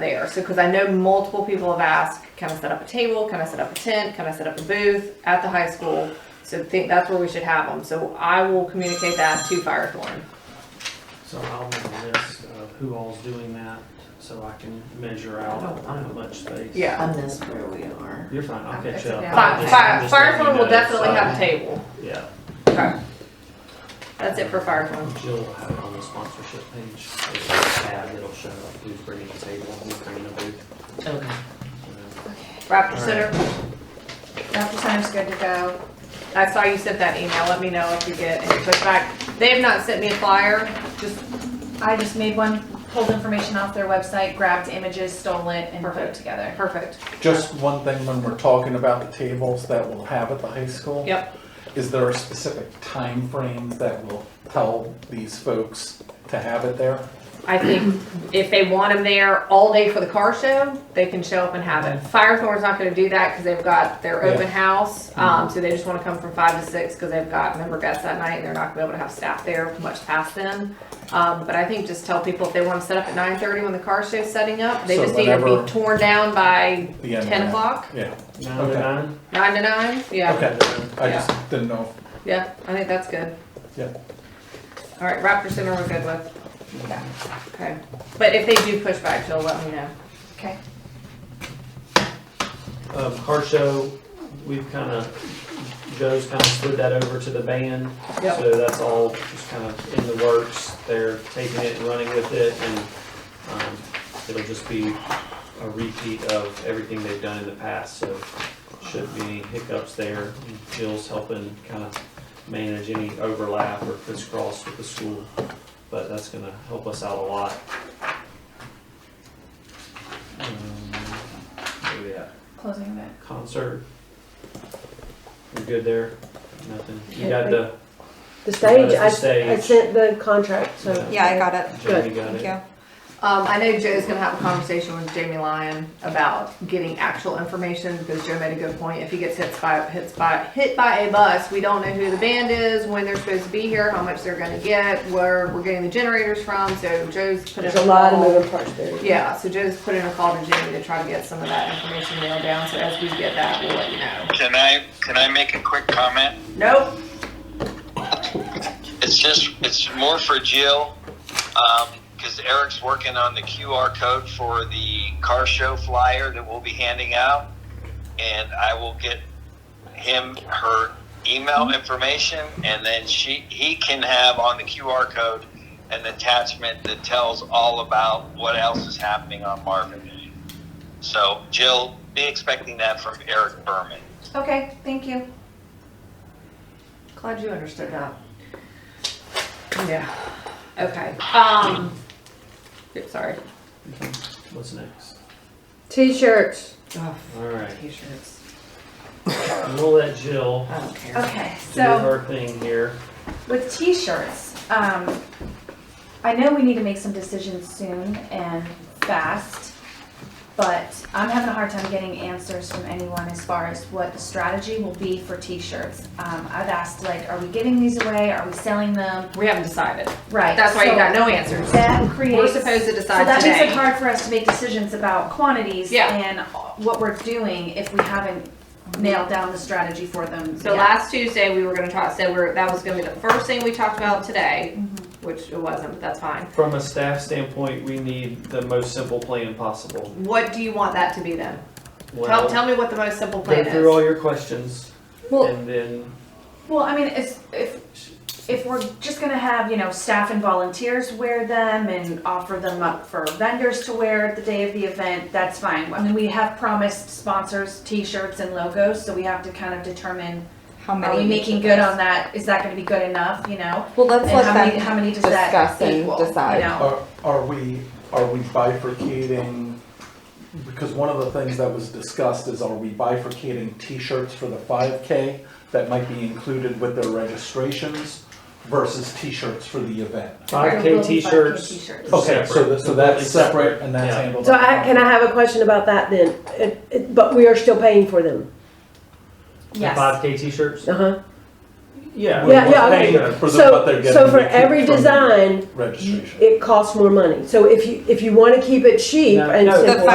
there. So, because I know multiple people have asked, can I set up a table? Can I set up a tent? Can I set up a booth at the high school? So, think that's where we should have them. So, I will communicate that to Firethorn. So I'll make a list of who all's doing that, so I can measure out how much space. Yeah. I miss where we are. You're fine, I'll catch up. Yeah. Fi- I'm just- I'm Fi- just letting Firethorn you will know, definitely so- have a table. Yeah, Okay. That's it for Firethorn. Jill will have it on the sponsorship page, there's a tab that'll show who's bringing a table, who's bringing a booth. Okay. and Raptor Center, Dr. Center's good to go. I saw you sent that email. Let me know if you get any pushback. They have not sent me a flyer. Just I just made one, pulled information off their website, grabbed images, stole it, and put it Perfect. together. perfect. Just one thing when we're talking about the tables that we'll have at the high school. Yep. Is there a specific time frames that will tell these folks to have it there? I think if they want them there all day for the car show, they can show up and have it. Firethorn's not gonna do that because they've got their open Yeah. Mm-hmm. house. Um, so they just wanna come from five to six because they've got member guests that night and they're not gonna be able to have staff there much past then. Um, but I think just tell people if they wanna set up at nine thirty when the car show's setting up, they So just need to whenever- be torn down by The end of ten that? o'clock, Yeah, then- Nine to Okay. nine? nine to nine, yeah. Okay. I Yeah. just didn't know. Yeah, I think that's good. Yeah. All right, Raptor Center we're good with. Okay, but if they do push back, Jill, let me know. Okay. Um, car show, we've kinda, Joe's kinda slid that over to the band, Yep. So that's all just kind of in the works. They're taking it and running with it and um, it'll just be a repeat of everything they've done in the past. So shouldn't be any hiccups there. Jill's helping kind of manage any overlap or crisscross with the school. But that's going to help us out a lot. Um, where we at? Closing event. Concert. You're good there? Nothing. You Yeah, got the, The stage, The I, stage. I sent the contract, so. Yeah. Yeah, I got it. Jamie got Thank it? you. Um, I know Joe's gonna have a conversation with Jamie Lyon about getting actual information because Joe made a good point. If he gets hit by hits by hit by a bus, we don't know who the band is, when they're supposed to be here, how much they're gonna get, where we're getting the generators from. So Joe's put in There's a lot of call. moving parts there. Yeah, so Joe's put in a call to Jamie to try to get some of that information nailed down. So as we get that, we'll let you know. Can I, can I make a quick comment? Nope. It's just, it's more for Jill, um, cause Eric's working on the QR code for the car show flyer that we'll be handing out. And I will get him her email information and then she, he can have on the QR code an attachment that tells all about what else is happening on Marvin Day. So Jill, be expecting that from Eric Berman. Okay, thank you. Glad you understood that. Yeah. Okay. Um. oops, Sorry. What's next? T-shirts, Oh, All right. t-shirts. And we'll let Jill I don't care. Okay, do so her thing here. with t-shirts, um, I know we need to make some decisions soon and fast, but I'm having a hard time getting answers from anyone as far as what the strategy will be for t-shirts. Um, I've asked like, are we giving these away? Are we selling them? We haven't decided. Right. That's why you so- got no answers. That creates. We're supposed to So decide that makes it today. hard for us to make decisions about quantities Yeah. and what we're doing if we haven't nailed down the strategy for them. So yet. last Tuesday, we were gonna talk, said we're, that was gonna be the first thing we talked about today, Mm-hmm. which it wasn't, but that's fine. From a staff standpoint, we need the most simple plan possible. What do you want that to be then? Tell, Well, tell me what the most simple plan Go through all is. your questions Well- and then, Well, I mean, it's, if, if we're just gonna have, you know, staff and volunteers wear them and offer them up for vendors to wear the day of the event, that's fine. I mean, we have promised sponsors, t-shirts and logos, so we have to kind of determine, How many? are we of each making of good those? on that? Is that gonna be good enough, you know? Well, let's And how let many, them. how many does discuss that and equal, decide. you know? Are, are we, are we bifurcating? Because one of the things that was discussed is are we bifurcating t-shirts for the five K that might be included with their registrations versus t-shirts for the event? five We're K gonna do 5K t-shirts. t-shirts. are Okay, so that, so Completely that's separate and that's Yeah. handled. so I, can I have a question about that then? It, it, but we are still paying for them, The Yes. five K t-shirts? uh-huh. Yeah. Yeah, We're yeah, paying okay. for the- what they're So, getting so for we keep every from design, Registration. it costs more money. So if you, if you wanna keep it cheap No, and no, simple.